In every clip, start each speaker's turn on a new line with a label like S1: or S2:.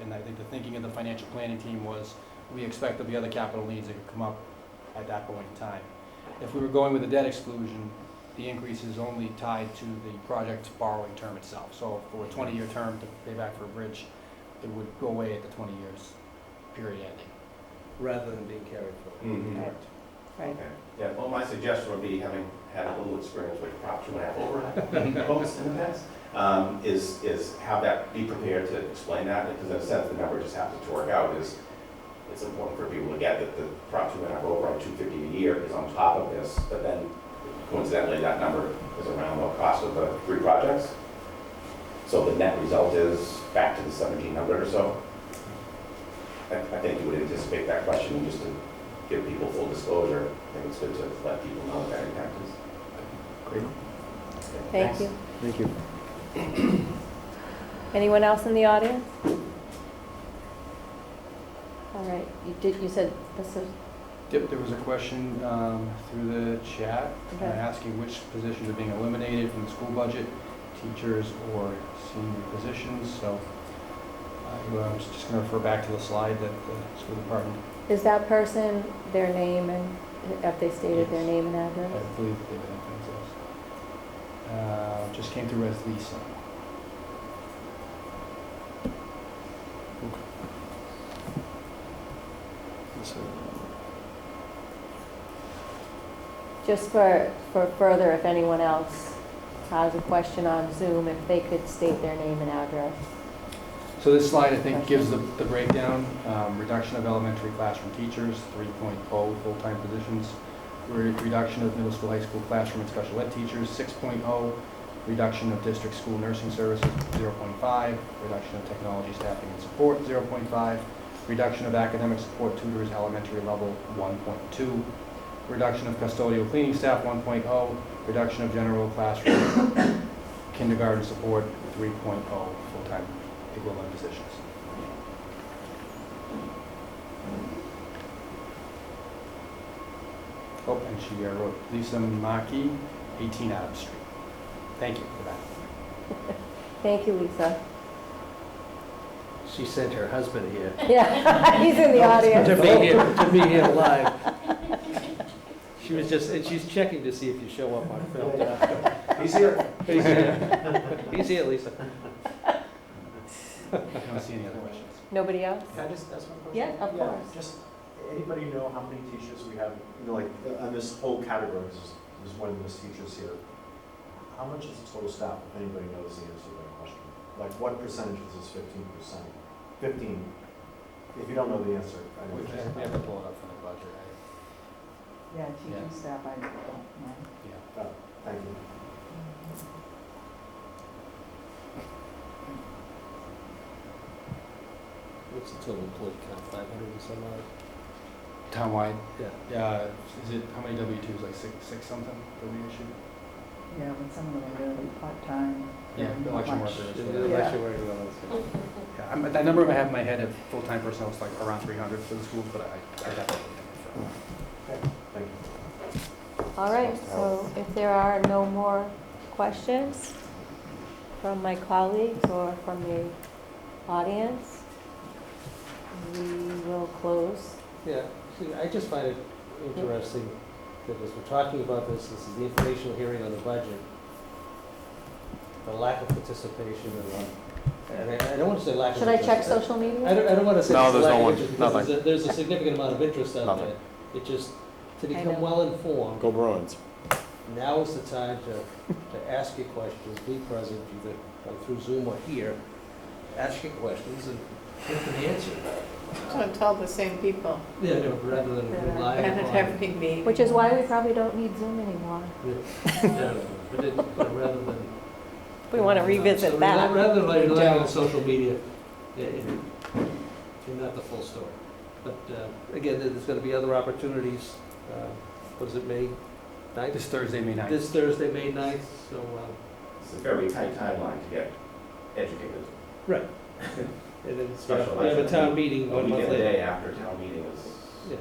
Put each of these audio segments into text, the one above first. S1: and I think the thinking of the financial planning team was, we expect there'll be other capital needs that could come up at that point in time. If we were going with a debt exclusion, the increase is only tied to the project's borrowing term itself. So for a twenty-year term to pay back for a bridge, it would go away at the twenty years period ending.
S2: rather than being carried forward.
S3: Mhm.
S1: Correct.
S4: Right.
S3: Okay. Yeah, well, my suggestion would be, having had a little experience with Prop 2.5 override votes in the past, um, is, is have that, be prepared to explain that, because in a sense, the number just happens to work out, is it's important for people to get that the Prop 2.5 override, 250 a year is on top of this, but then coincidentally, that number is around the cost of the three projects. So the net result is back to the 1,700 or so. I, I think you would anticipate that question, and just to give people full disclosure, I think it's good to let people know what that impact is. Great.
S4: Thank you.
S2: Thank you.
S4: Anyone else in the audience? All right, you did, you said this is,
S1: Yep, there was a question um, through the chat uh,
S4: Okay.
S1: asking which positions are being eliminated from the school budget, teachers or senior positions. So I uh, was just going to refer back to the slide that the school department,
S4: is that person, their name and, have they stated their name and
S1: I
S4: address?
S1: believe they did themselves. Uh, Just came through as Lisa.
S4: Just for, for further, if anyone else has a question on Zoom, if they could state their name and address.
S1: So this slide, I think, gives the the breakdown, um, reduction of elementary classroom teachers, 3.0 full-time positions, re- reduction of middle school, high school classroom and special ed teachers, 6.0, reduction of district school nursing services, 0.5, reduction of technology staffing and support, 0.5, reduction of academic support tutors, elementary level, 1.2, reduction of custodial cleaning staff, 1.0, reduction of general classroom kindergarten support, 3.0 full-time equivalent positions. Oh, and she uh, wrote Lisa Maki, 18 Adams Street. Thank you for that.
S4: Thank you, Lisa.
S2: She sent her husband here.
S4: Yeah, he's in the
S2: To
S4: audience.
S2: be here, to be here live. She was just, and she's checking to see if you show up on film.
S3: He's here.
S2: He's here, He's here, Lisa.
S1: I don't see any other questions.
S4: Nobody else?
S5: Can I just ask one question?
S4: Yeah, of course.
S5: Just, anybody know how many teachers we have, you know, like, uh, on this whole category, there's, there's more than just teachers here. How much is the total staff, if anybody knows the answer to that question? Like, what percentage is this fifteen percent? Fifteen, if you don't know the answer, I know.
S1: We
S5: what
S1: we
S5: you're
S1: have
S5: saying.
S1: to pull it up from the budget, right?
S6: Yeah,
S1: Yeah.
S6: teaching staff, I don't know.
S1: Yeah.
S5: Thank you.
S2: What's the total employee count, five hundred and some odd?
S1: Townwide,
S2: Yeah.
S1: yeah, is it, how many W-2s, like six, six something that we issued?
S6: Yeah, when some of them are really part-time.
S1: Yeah,
S6: they're
S1: election
S6: much-
S1: workers.
S2: Yeah,
S6: Yeah.
S2: election worker, well, that's-
S1: Yeah, I'm- That number I have in my head of full-time personnel is like around 300 for the schools, but I, I definitely.
S4: Hmm.
S5: Thank you.
S4: All right, so if there are no more questions from my colleagues or from the audience, we will close.
S2: Yeah, see, I just find it interesting that as we're talking about this, this is the informational hearing on the budget, the lack of participation and, and I I don't want to say lack of.
S4: Should I check
S2: participation.
S4: social media?
S2: I don't, I don't want to say.
S7: No,
S2: it's
S7: there's
S2: lack
S7: no
S2: of
S7: one,
S2: interest, because
S7: nothing.
S2: there's a- There's a significant amount of interest out
S7: Nothing.
S2: there. It just, to
S4: know.
S2: become well-informed,
S7: Go Bruins.
S2: now is the time to, to ask your questions, be present, either through Zoom or here. Ask your questions and get them answered.
S8: So tell the same people
S2: Yeah, no, rather than rely
S8: and at
S2: upon.
S8: every meeting.
S4: Which is why we probably don't need Zoom anymore.
S2: Yeah, no, But it, but rather than.
S4: We want to
S2: So
S4: revisit
S2: rather-
S4: that.
S2: Rather than like
S8: We
S2: relying on
S8: don't.
S2: social media, i- i- you're not the full story. But uh, again, there- there's going to be other opportunities, uh, what is it, May ninth?
S1: This Thursday, May 9th.
S2: This Thursday, May 9th, so, uh,
S3: It's a very tight timeline to get educated.
S2: and then it's- we
S3: Special
S2: have a
S3: election.
S2: town meeting
S3: A
S2: one
S3: week
S2: month
S3: and a
S2: later.
S3: day after town meeting is,
S2: Yeah,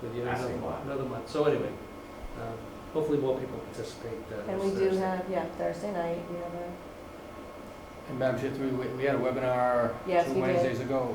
S2: but you have
S3: Asking
S2: another-
S3: why.
S2: another month. So anyway, uh, hopefully more people participate. uh,
S4: And
S2: this
S4: we do
S2: Thursday.
S4: have, yeah, Thursday night, we have a
S1: And Madam Chair, through- we, we had a webinar
S4: Yes,
S1: two
S4: we did.
S1: Wednesdays ago